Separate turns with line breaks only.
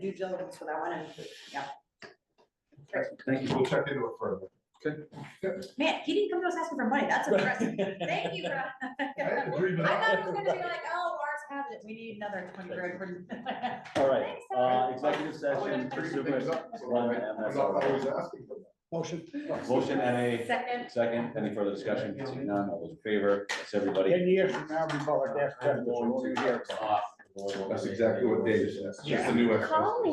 due diligence for that one, and, yeah.
Thank you. We'll check into it further.
Man, he didn't come to us asking for money, that's impressive, thank you, Rob.
I
I
agree with
thought it
that.
was gonna be like, oh, ours has it, we need another twenty grand for.
All right,
Thanks,
uh,
Sarah.
Oh, I
executive
like
session,
to
for
bring
super-
things up, so
one
I'm I'm not always asking for that.
Motion.
motion and
Second,
a second, any further discussion, seeing none, all those in favor, that's everybody.
Ten years from now, we call it death penalty.
Off.
That's exactly what Dave said. It's just a new exercise.
call me.